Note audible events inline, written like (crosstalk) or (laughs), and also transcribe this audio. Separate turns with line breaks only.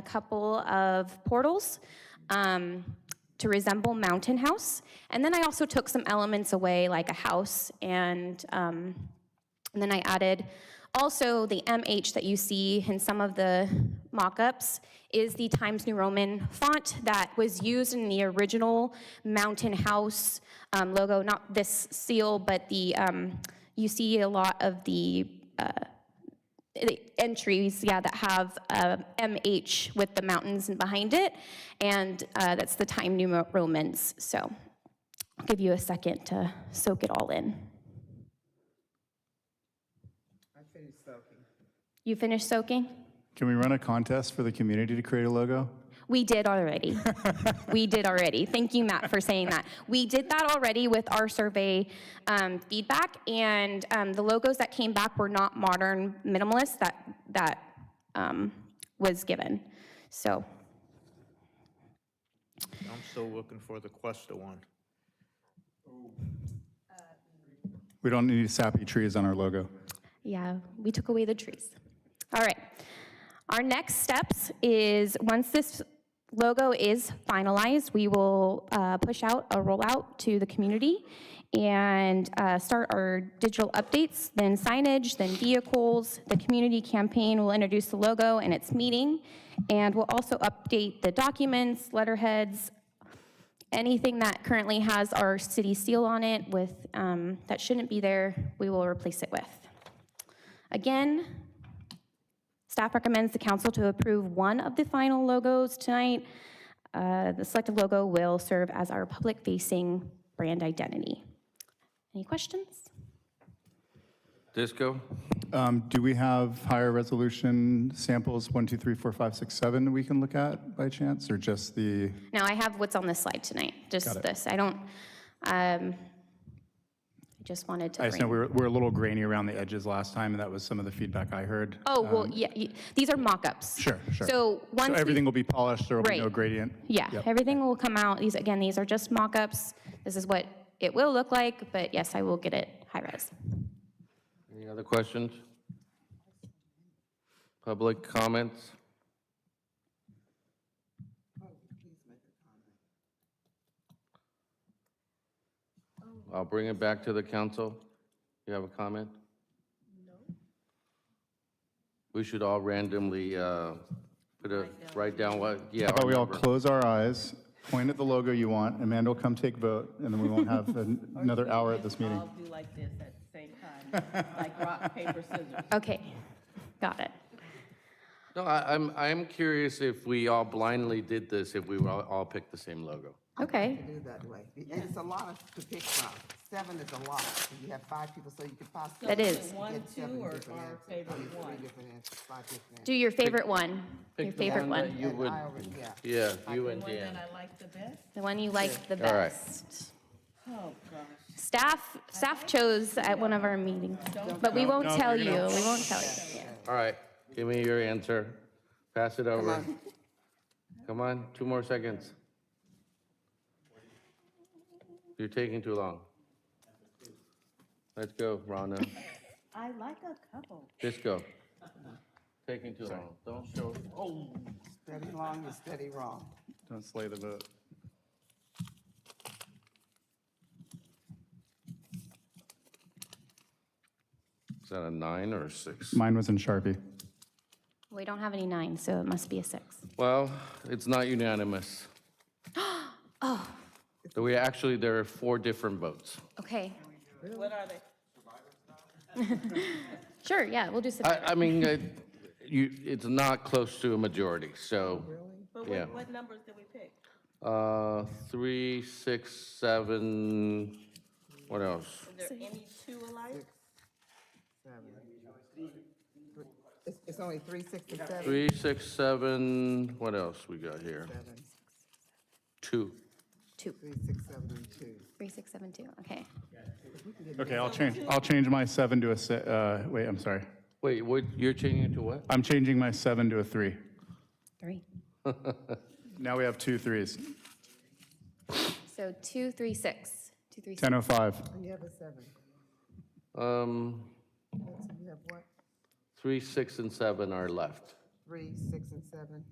a couple of portals um, to resemble Mountain House. And then I also took some elements away, like a house, and, um, and then I added also the MH that you see in some of the mock-ups is the Times New Roman font that was used in the original Mountain House um, logo, not this seal, but the, um, you see a lot of the the entries, yeah, that have uh, MH with the mountains and behind it, and uh, that's the time New Romans. So I'll give you a second to soak it all in.
I finished soaking.
You finished soaking?
Can we run a contest for the community to create a logo?
We did already. we did already. Thank you, Matt, for saying that. We did that already with our survey um, feedback, and um, the logos that came back were not modern minimalist that that um, was given. So
I'm still looking for the Cuesta one.
We don't need sappy trees on our logo.
Yeah, we took away the trees. All right. Our next steps is, once this logo is finalized, we will uh, push out a rollout to the community and uh, start our digital updates, then signage, then vehicles. The community campaign will introduce the logo and its meeting, and we'll also update the documents, letterheads, anything that currently has our city seal on it with, um, that shouldn't be there, we will replace it with. Again, staff recommends the council to approve one of the final logos tonight. Uh, The selected logo will serve as our public-facing brand identity. Any questions?
Disco?
Um, Do we have higher resolution samples, one, two, three, four, five, six, seven, we can look at by chance, or just the,
No, I have what's on this slide tonight, just this. I don't, um, I just wanted to
I just know
bring.
we were, we're a little grainy around the edges last time, and that was some of the feedback I heard.
Oh, well, yeah, y- these are mock-ups.
um, Sure, sure.
So once
So
we-
everything will be polished, there will be no
Right.
gradient?
Yeah,
Yep.
everything will come out. These, again, these are just mock-ups. This is what it will look like, but yes, I will get it high-res.
Any other questions? Public comments? I'll bring it back to the council. You have a comment? No. We should all randomly uh, put a, write down what, yeah.
How about Uh, we all
remember.
close our eyes, point at the logo you want, Amanda will come take vote, and then we won't have an- (laughs) another hour at this meeting.
I'll do like this at the same time, like rock, paper, scissors.
Okay, got it.
No, I- I'm, I'm curious if we all blindly did this, if we were all- all picked the same logo.
Okay,
do that way. And it's a lot to pick from. Seven is a lot. So You have five people, so you could possibly.
That is.
get
One,
seven
two, or
different
our
answers. I
favorite
mean, three
one?
different answers, five different
do
answers.
your favorite one, your
Pick the
favorite
that
one,
You
And
would,
I already- yeah.
yeah, you and
One that
Dan.
I like the best?
the one you like the
All right.
best.
Oh, gosh.
Staff, staff chose at one of our meetings, but we won't tell you, we won't tell you.
All right, give me your answer. Pass it over. Come on, two more seconds. You're taking too long. Let's go, Rhonda.
I like a couple.
Disco. Taking too long. Don't show, oh.
Steady long and steady wrong.
Don't slay the vote.
Is that a nine or a six?
Mine was in Sharpie.
We don't have any nine, so it must be a six.
Well, it's not unanimous. So we actually, there are four different votes.
Okay,
What are they?
sure, yeah, we'll do some.
I, I mean, uh, you, it's not close to a majority, so.
But
Yeah.
what, what numbers did we pick?
Uh, three, six, seven, what else?
Is there any two alike?
It's, it's only three, six, and seven.
Three, six, seven, what else we got here?
Seven,
Two.
Two,
three, six, seven, and two.
three, six, seven, two, okay.
Okay, I'll change, I'll change my seven to a, si- uh, wait, I'm sorry.
Wait, what, you're changing it to what?
I'm changing my seven to a three.
Three.
Now we have two threes.
So two, three, six, two, three, six.
10:05.
And you have a seven.
Um,
So you have what?
three, six, and seven are left.
Three, six, and seven?